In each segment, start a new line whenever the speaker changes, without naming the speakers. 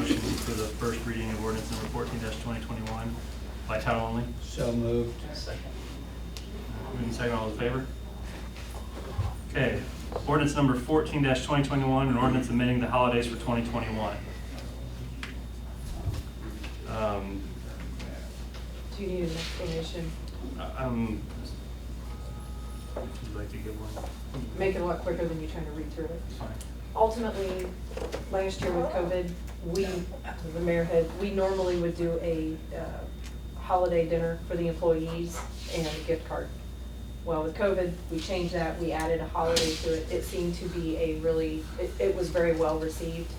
the first reading of ordinance number fourteen twenty twenty-one by title only.
So moved.
Moving to second, all those in favor? Okay, ordinance number fourteen twenty twenty-one, an ordinance amending the holidays for twenty twenty-one.
Do you need an explanation?
Um, would you like to give one?
Make it a lot quicker than you trying to read through it.
It's fine.
Ultimately, last year with COVID, we, the mayor had, we normally would do a uh, holiday dinner for the employees and a gift card. Well, with COVID, we changed that, we added a holiday to it. It seemed to be a really, it, it was very well received.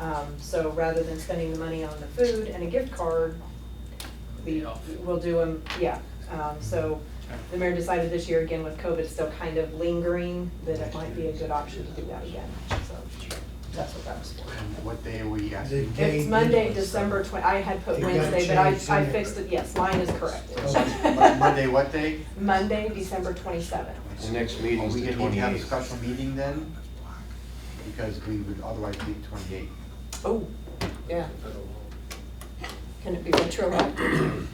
Um, So rather than spending the money on the food and a gift card, we, we'll do them, yeah. Um, So the mayor decided this year, again, with COVID still kind of lingering, that it might be a good option to do that again. So that's what that was for.
And what day are we
The
asking?
date
It's
is-
Monday, December twen, I had put
It got
Wednesday, but I,
changed in
I
there.
fixed it, yes, mine is correct.
Mon- Monday, what day?
Monday, December twenty-seventh.
The next
Are
meeting's
we
the
gonna need to have a
28th.
special meeting then? Because we would otherwise be twenty-eight.
Oh, yeah. Can it be retroactive?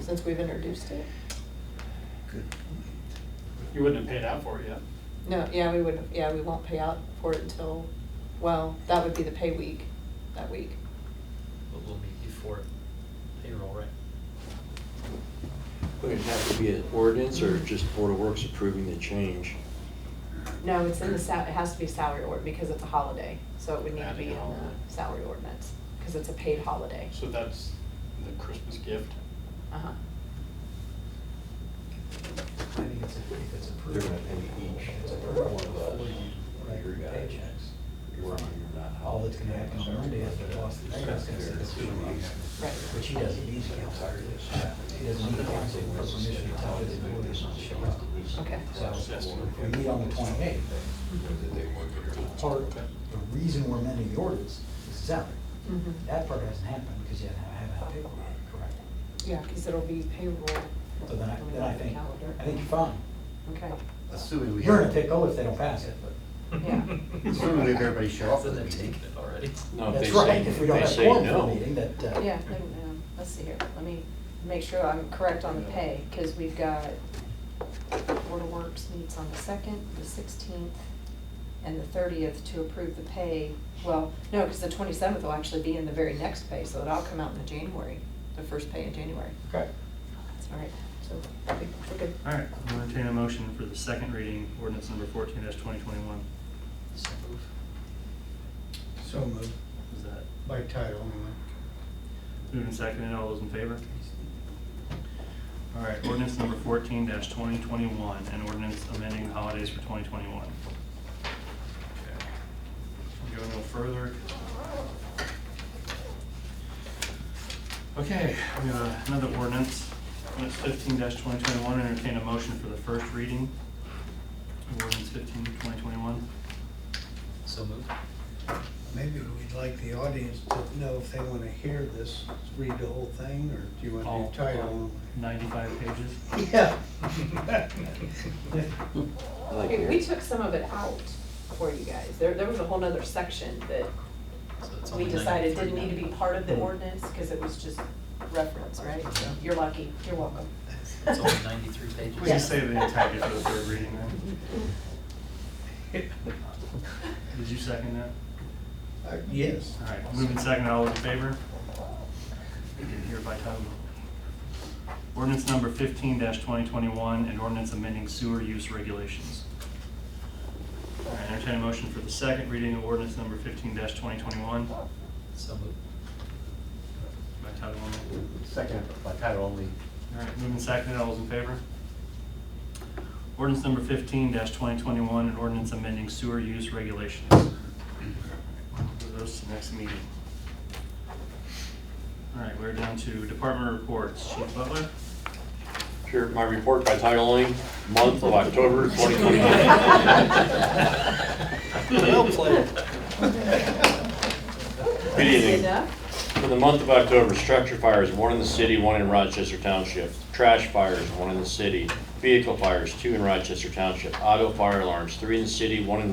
Since we've introduced it?
You wouldn't have paid out for it yet.
No, yeah, we would, yeah, we won't pay out for it until, well, that would be the pay week, that week.
But we'll meet before payroll, right?
Would it have to be an ordinance or just Board of Works approving the change?
No, it's in the sal, it has to be salary ord, because it's a holiday, so it would need to be in
Adding a holiday.
the salary ordinance, because it's a paid holiday.
So that's the Christmas gift.
Uh-huh.
I think it's, I think that's
They're
approved.
gonna pay each one of us,
Right,
your guys,
paychecks.
you're on your not
All
holiday.
that's gonna happen on Monday is the boss, the sheriff's gonna send us two bucks,
Right.
which he doesn't need the council. He doesn't need the council for permission to tell his employees not to show up.
Okay.
So, we meet on the twenty-eighth, part, the reason we're amending the ordinance is salary.
Mm-hmm.
That part hasn't happened because you haven't, haven't had paperwork, correct?
Yeah, because it'll be payroll.
So then I, then I think,
Calendar.
I think you're fine.
Okay,
Assuming we
You're in a
have,
pickle if they don't pass it, but
yeah.
assuming we have everybody show up for
Hasn't
the
it
meeting.
taken it already?
No, if they
that's
say-
right, if we don't
they
have a
say
quorum for
no.
the meeting, that, uh.
Yeah, let me, um, let's see here, let me make sure I'm correct on the pay, because we've got Board of Works meets on the second, the sixteenth, and the thirtieth to approve the pay. Well, no, because the twenty-seventh will actually be in the very next pay, so it'll all come out in the January, the first pay in January.
Okay.
All right, so, I think we're good.
All right, I'll entertain a motion for the second reading, ordinance number fourteen twenty twenty-one.
So move.
So moved.
Is that
By title only.
moved and seconded? All those in favor? All right, ordinance number fourteen twenty twenty-one, an ordinance amending the holidays for twenty twenty-one. Go no further. Okay, we have another ordinance, ordinance fifteen twenty twenty-one, entertain a motion for the first reading. of Ordinance fifteen twenty twenty-one.
So move.
Maybe we'd like the audience to know if they want to hear this, read the whole thing, or do you
All-
want to do title
Ninety-five pages.
only? Yeah.
uh,
I like
Okay, we
your-
took some of it out for you guys. There, there was a whole nother section that
So it's
we
only
decided
93
didn't need to be
now. Hmm.
part of the ordinance, because it was just reference, right? So You're lucky, you're welcome.
It's only ninety-three pages.
We just say the entire for the third reading then. Did you second that?
Uh, Yes.
All right, moving second, all in favor? You can hear by title. Ordinance number fifteen twenty twenty-one, and ordinance amending sewer use regulations. All right, entertain a motion for the second reading of ordinance number fifteen twenty twenty-one
So move.
by title only.
Second, by title only.
All right, moving second, all those in favor? Ordinance number fifteen twenty twenty-one, and ordinance amending sewer use regulations. All right, we'll do Those to next meeting. All right, we're down to department reports. Chief Butler?
Sure, my report by title only, month of October 2021.
Well played.
Good evening.
Enough?
For the month of October, structure fires, one in the city, one in Rochester Township. Trash fires, one in the city. Vehicle fires, two in Rochester Township. Auto fire alarms, three in the city, one in